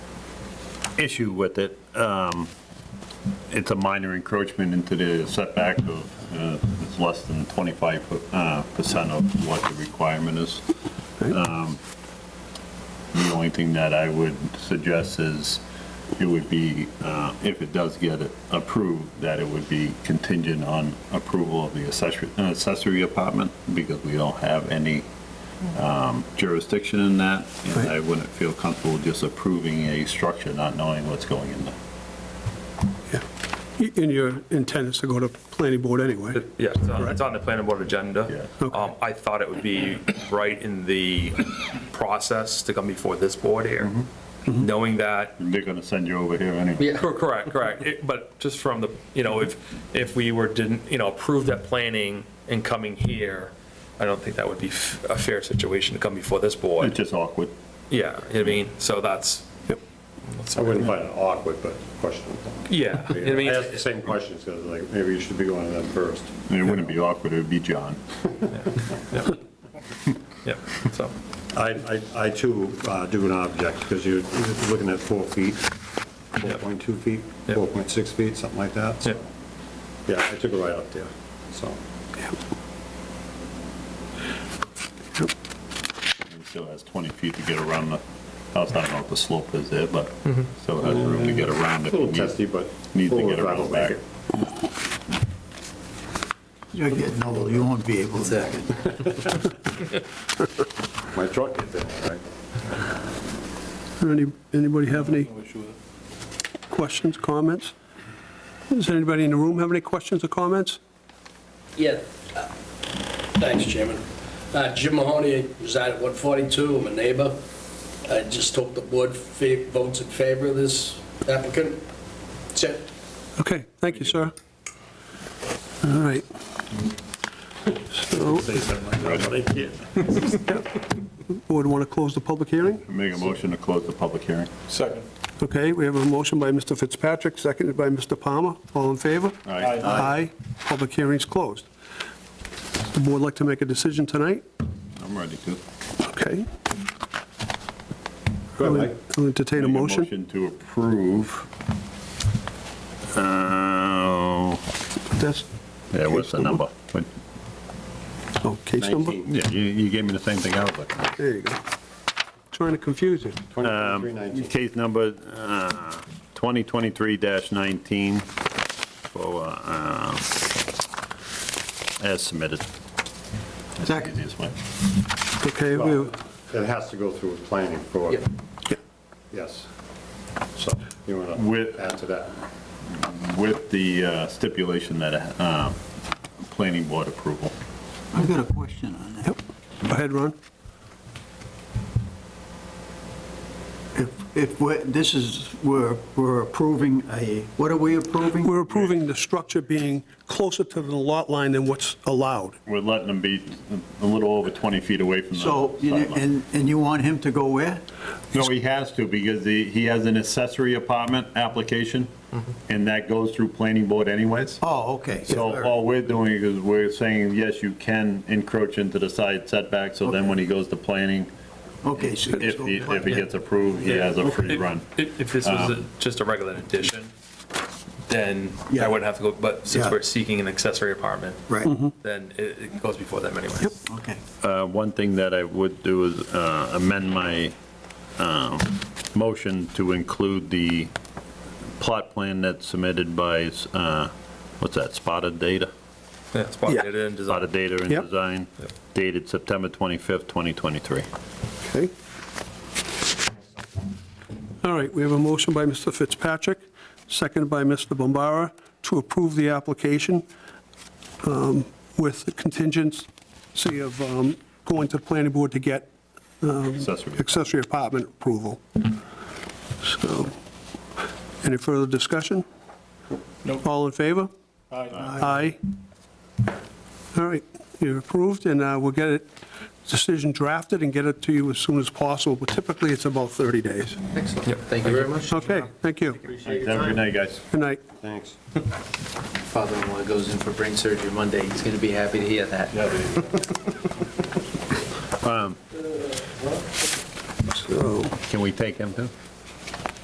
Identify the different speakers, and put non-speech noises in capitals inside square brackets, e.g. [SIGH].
Speaker 1: issue with it. Um, It's a minor encroachment into the setback of, uh, it's less than 25% uh, percent of what the requirement is. Um, The only thing that I would suggest is it would be, uh, if it does get approved, that it would be contingent on approval of the accessory- uh, accessory apartment because we don't have any jurisdiction in that, and I wouldn't feel comfortable just approving a structure not knowing what's going in there.
Speaker 2: In your intent is to go to planning board anyway.
Speaker 3: Yeah, it's on- it's on the planning board agenda.
Speaker 1: Yeah.
Speaker 2: Okay.
Speaker 3: Um, I thought it would be right in the process to come before this board here, knowing that,
Speaker 1: They're gonna send you over here anyway.
Speaker 3: Cor- correct, correct, It- but just from the, you know, if, if we were, didn't, you know, approve that planning and coming here, I don't think that would be f- a fair situation to come before this
Speaker 1: It's
Speaker 3: board.
Speaker 1: just awkward.
Speaker 3: Yeah, you know what I mean, so that's,
Speaker 4: I wouldn't find it awkward, but questionable.
Speaker 3: yeah, you know what [LAUGHS] I
Speaker 4: I
Speaker 3: mean?
Speaker 4: asked the same questions, because like, maybe you should be going to them first.
Speaker 1: It wouldn't be awkward, it would be John.
Speaker 3: Yep. Yep, so,
Speaker 4: I, I, I too uh, do an object, because you're you're looking at four feet, 4.2 feet,
Speaker 3: Yep.
Speaker 4: 4.6 feet, something like that.
Speaker 3: yeah.
Speaker 4: So Yeah, I took it right up there, so.
Speaker 1: He still has 20 feet to get around the house, I don't know what the slope is there, but still has room to get around if
Speaker 4: A
Speaker 1: he
Speaker 4: little
Speaker 1: needs.
Speaker 4: testy, but.
Speaker 1: need to
Speaker 4: four-wheel
Speaker 1: get
Speaker 4: drive will
Speaker 1: around back.
Speaker 4: make it.
Speaker 5: You're getting old, you won't be able to.
Speaker 4: My truck gets in, there, right?
Speaker 2: Any- Anybody have any questions, comments? Does anybody in the room have any questions or comments?
Speaker 6: Yeah. uh, Thanks, Chairman. Uh, Jim Mahoney, reside at 142, I'm a neighbor. I just hope the board fa- votes in favor of this applicant. That's it.
Speaker 2: Okay, thank you, sir. All right. So, would want to close the public hearing?
Speaker 1: Make a motion to close the public hearing.
Speaker 2: Okay, we have a motion by Mr. Fitzpatrick, seconded by Mr. Palmer. All in favor?
Speaker 1: All right.
Speaker 2: Aye. Public hearing's closed. The board like to make a decision tonight?
Speaker 1: I'm ready to.
Speaker 2: Okay.
Speaker 4: Go ahead, Mike.
Speaker 2: I'll entertain a
Speaker 1: Make
Speaker 2: motion.
Speaker 1: Motion to approve. Uh,
Speaker 2: That's,
Speaker 1: Yeah, what's the number? What-
Speaker 2: oh, case number?
Speaker 4: 19,
Speaker 1: Yeah, you, you gave me the same thing I was looking at.
Speaker 2: There you go. Trying to confuse you.
Speaker 4: 23, 19.
Speaker 1: Case number uh, 2023-19 for, uh, as submitted. That's the
Speaker 5: Second.
Speaker 1: easiest way.
Speaker 2: Okay, we,
Speaker 4: Well, It has to go through planning for,
Speaker 6: Yep.
Speaker 4: yes. So you want
Speaker 1: With-
Speaker 4: to add to that?
Speaker 1: With the uh, stipulation that uh, planning board approval.
Speaker 5: I've got a question on that.
Speaker 2: yep. Go ahead, Ron.
Speaker 5: If, if, we're- this is, we're, we're approving a, what are we approving?
Speaker 2: We're approving the structure being closer to the lot line than what's allowed.
Speaker 1: We're letting them be a little over 20 feet away from the
Speaker 5: So, you know,
Speaker 1: sideline.
Speaker 5: and, and you want him to go where?
Speaker 1: No, he has to because he he has an accessory apartment application and that goes through planning board anyways.
Speaker 5: Mm-hmm. Oh, okay.
Speaker 1: So all we're doing is we're saying, yes, you can encroach into the side setback, so then when he goes to planning,
Speaker 5: Okay, so.
Speaker 1: if he, if he gets approved, he has a free run. Um,
Speaker 3: If if this was a- just a regular addition, then I
Speaker 5: Yeah.
Speaker 3: wouldn't have to go, but since
Speaker 5: Yeah.
Speaker 3: we're seeking an accessory apartment,
Speaker 5: Right,
Speaker 3: then it it goes before them anyway.
Speaker 5: okay.
Speaker 1: Uh, One thing that I would do is uh, amend my um, motion to include the plot plan that's submitted by, uh, what's that, Spotted Data?
Speaker 3: Yeah,
Speaker 2: Yeah.
Speaker 3: spotted it in design.
Speaker 1: Spotted Data and
Speaker 2: Yep.
Speaker 1: Design dated September 25th, 2023.
Speaker 2: Okay. All right, we have a motion by Mr. Fitzpatrick, seconded by Mr. Bombara, to approve the application um, with the contingency of um, going to the planning board to get
Speaker 1: Accessory.
Speaker 2: accessory apartment approval. So, any further discussion? No. All in favor? Aye. All right, you're approved, and uh, we'll get it, decision drafted and get it to you as soon as possible, but typically it's about 30 days.
Speaker 6: Excellent. Thank you very much.
Speaker 2: Okay, thank you.
Speaker 1: Have a good night, guys.
Speaker 2: Good night.
Speaker 4: Thanks.
Speaker 7: father-in-law goes in for brain surgery Monday. He's going to be happy to hear that.
Speaker 2: So,
Speaker 1: Can we take him too?